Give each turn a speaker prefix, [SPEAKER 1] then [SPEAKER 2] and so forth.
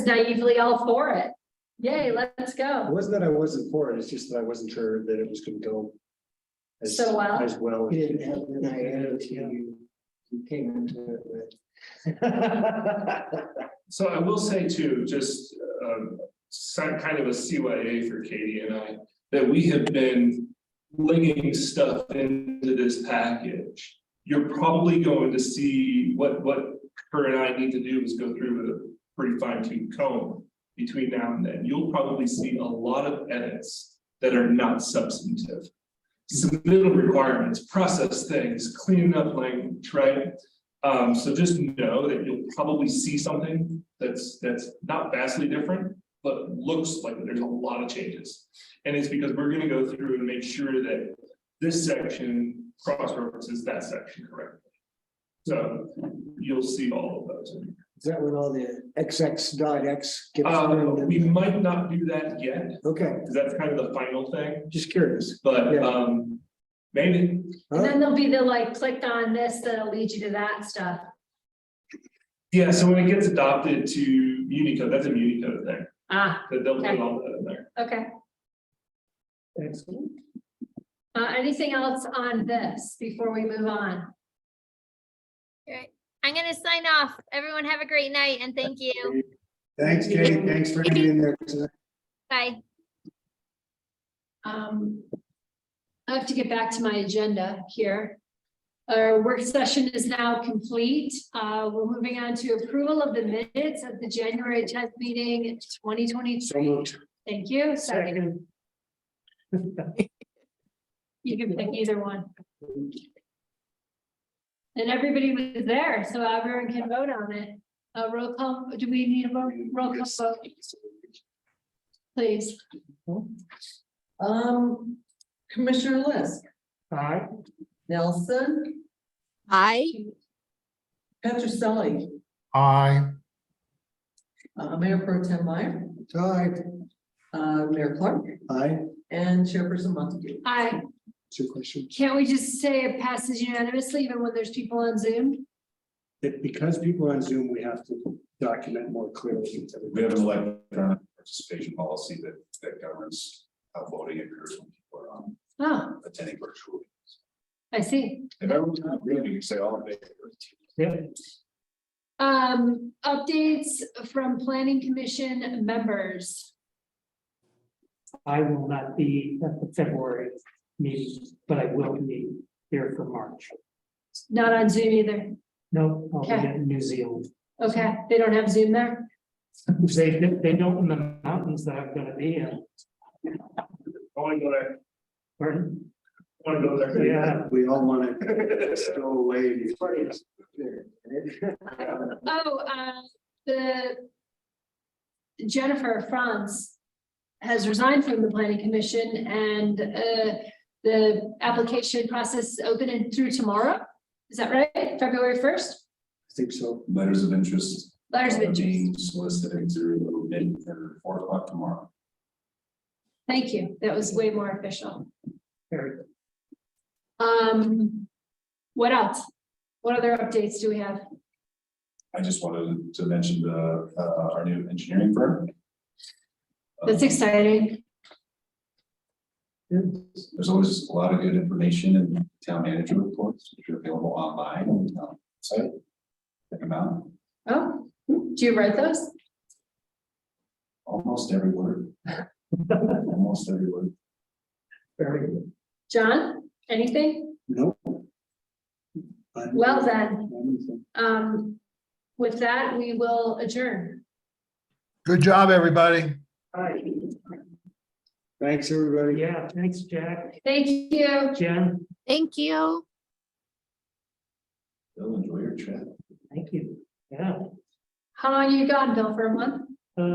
[SPEAKER 1] naively all for it. Yay, let's
[SPEAKER 2] It
[SPEAKER 1] go.
[SPEAKER 2] wasn't that I wasn't for it, it's just that I wasn't sure that it was gonna go. as-
[SPEAKER 1] So uh, well?
[SPEAKER 2] As well.
[SPEAKER 3] You didn't have an idea until you, you came into it with.
[SPEAKER 4] So I will say too, just um some kind of a CYA for Katie and I, that we have been linking stuff into this package. You're probably going to see what what her and I need to do is go through with a pretty fine tooth comb between now and then. You'll probably see a lot of edits that are not substantive. Submittal requirements, process things, cleaning up language, right? Um, so just know that you'll probably see something that's, that's not vastly different, but looks like there's a lot of changes. And it's because we're gonna go through and make sure that this section cross-references that section correctly. So you'll see all of those.
[SPEAKER 3] Is that when all the XX dot X gets
[SPEAKER 4] Um, we
[SPEAKER 3] turned in?
[SPEAKER 4] might not do that yet,
[SPEAKER 3] Okay,
[SPEAKER 4] because that's kind of the final thing,
[SPEAKER 3] just curious.
[SPEAKER 4] but,
[SPEAKER 3] Yeah.
[SPEAKER 4] um, maybe.
[SPEAKER 1] And then there'll be the like, click on this, that'll lead you to that stuff.
[SPEAKER 4] Yeah, so when it gets adopted to Unicode, that's a Unicode thing,
[SPEAKER 1] Ah,
[SPEAKER 4] that they'll put all that in there.
[SPEAKER 1] okay. Uh, anything else on this before we move on?
[SPEAKER 5] I'm gonna sign off. Everyone have a great night and thank you.
[SPEAKER 2] Thanks, Kate, thanks for
[SPEAKER 5] hanging
[SPEAKER 2] in there.
[SPEAKER 5] Bye.
[SPEAKER 1] Um, I have to get back to my agenda here. Our work session is now complete. Uh, we're moving on to approval of the minutes of the January tenth meeting, twenty twenty-three. Thank you. Second. You can pick either one. And everybody was there, so everyone can vote on it. Uh, roll call, do we need a vote? roll call vote? Please.
[SPEAKER 6] Um, Commissioner List,
[SPEAKER 3] Aye.
[SPEAKER 6] Nelson,
[SPEAKER 7] Aye.
[SPEAKER 6] Petroselli,
[SPEAKER 8] Aye.
[SPEAKER 6] uh, Mayor Pro Tem Meyer,
[SPEAKER 3] Aye.
[SPEAKER 6] uh, Mayor Clark,
[SPEAKER 3] Aye,
[SPEAKER 6] and Chairperson Montague.
[SPEAKER 1] Aye.
[SPEAKER 3] two questions.
[SPEAKER 1] Can't we just say it passes unanimously even when there's people on Zoom?
[SPEAKER 2] That because people are on Zoom, we have to document more clearly.
[SPEAKER 9] We have an electronic participation policy that, that governs how voting occurs when people are um,
[SPEAKER 1] Oh,
[SPEAKER 9] attending virtually.
[SPEAKER 1] I see.
[SPEAKER 9] If everyone's not agreeing, you can say all in favor.
[SPEAKER 1] Um, updates from planning commission members.
[SPEAKER 10] I will not be at the February meeting, but I will be here for March.
[SPEAKER 1] Not on Zoom either.
[SPEAKER 10] No, I'll be
[SPEAKER 1] Okay.
[SPEAKER 10] in New Zealand.
[SPEAKER 1] Okay, they don't have Zoom there.
[SPEAKER 10] They, they don't in the mountains that I'm gonna be in.
[SPEAKER 4] I wanna go there,
[SPEAKER 10] Pardon?
[SPEAKER 4] I wanna go there.
[SPEAKER 10] Yeah.
[SPEAKER 2] We all wanna go away.
[SPEAKER 1] Oh, uh, the Jennifer Franz has resigned from the planning commission and, uh, the application process is open and through tomorrow. Is that right? February first?
[SPEAKER 2] Think so.
[SPEAKER 9] Letters of interest.
[SPEAKER 1] Letters of
[SPEAKER 9] are
[SPEAKER 1] interest.
[SPEAKER 9] Being solicited through mid or four o'clock tomorrow.
[SPEAKER 1] Thank you. That was way more official.
[SPEAKER 10] Very good.
[SPEAKER 1] Um, what else? What other updates do we have?
[SPEAKER 9] I just wanted to mention the, uh, our new engineering firm.
[SPEAKER 1] That's
[SPEAKER 9] Um,
[SPEAKER 1] exciting.
[SPEAKER 9] Um, There's always a lot of good information in town manager reports, which are available online on the town site. Check them out,
[SPEAKER 1] Oh, do you write those?
[SPEAKER 9] almost every word. Almost every word.
[SPEAKER 10] Very good.
[SPEAKER 1] John, anything?
[SPEAKER 2] No.
[SPEAKER 1] Well then, um, with that, we will adjourn.
[SPEAKER 8] Good job, everybody.
[SPEAKER 10] All right.
[SPEAKER 2] Thanks, everybody.
[SPEAKER 10] Yeah, thanks, Jack,
[SPEAKER 1] Thank you.
[SPEAKER 10] Jen,
[SPEAKER 7] Thank you.
[SPEAKER 9] Bill, enjoy your trip.
[SPEAKER 10] thank you. Yeah.
[SPEAKER 1] How long you gone, Bill, for a month?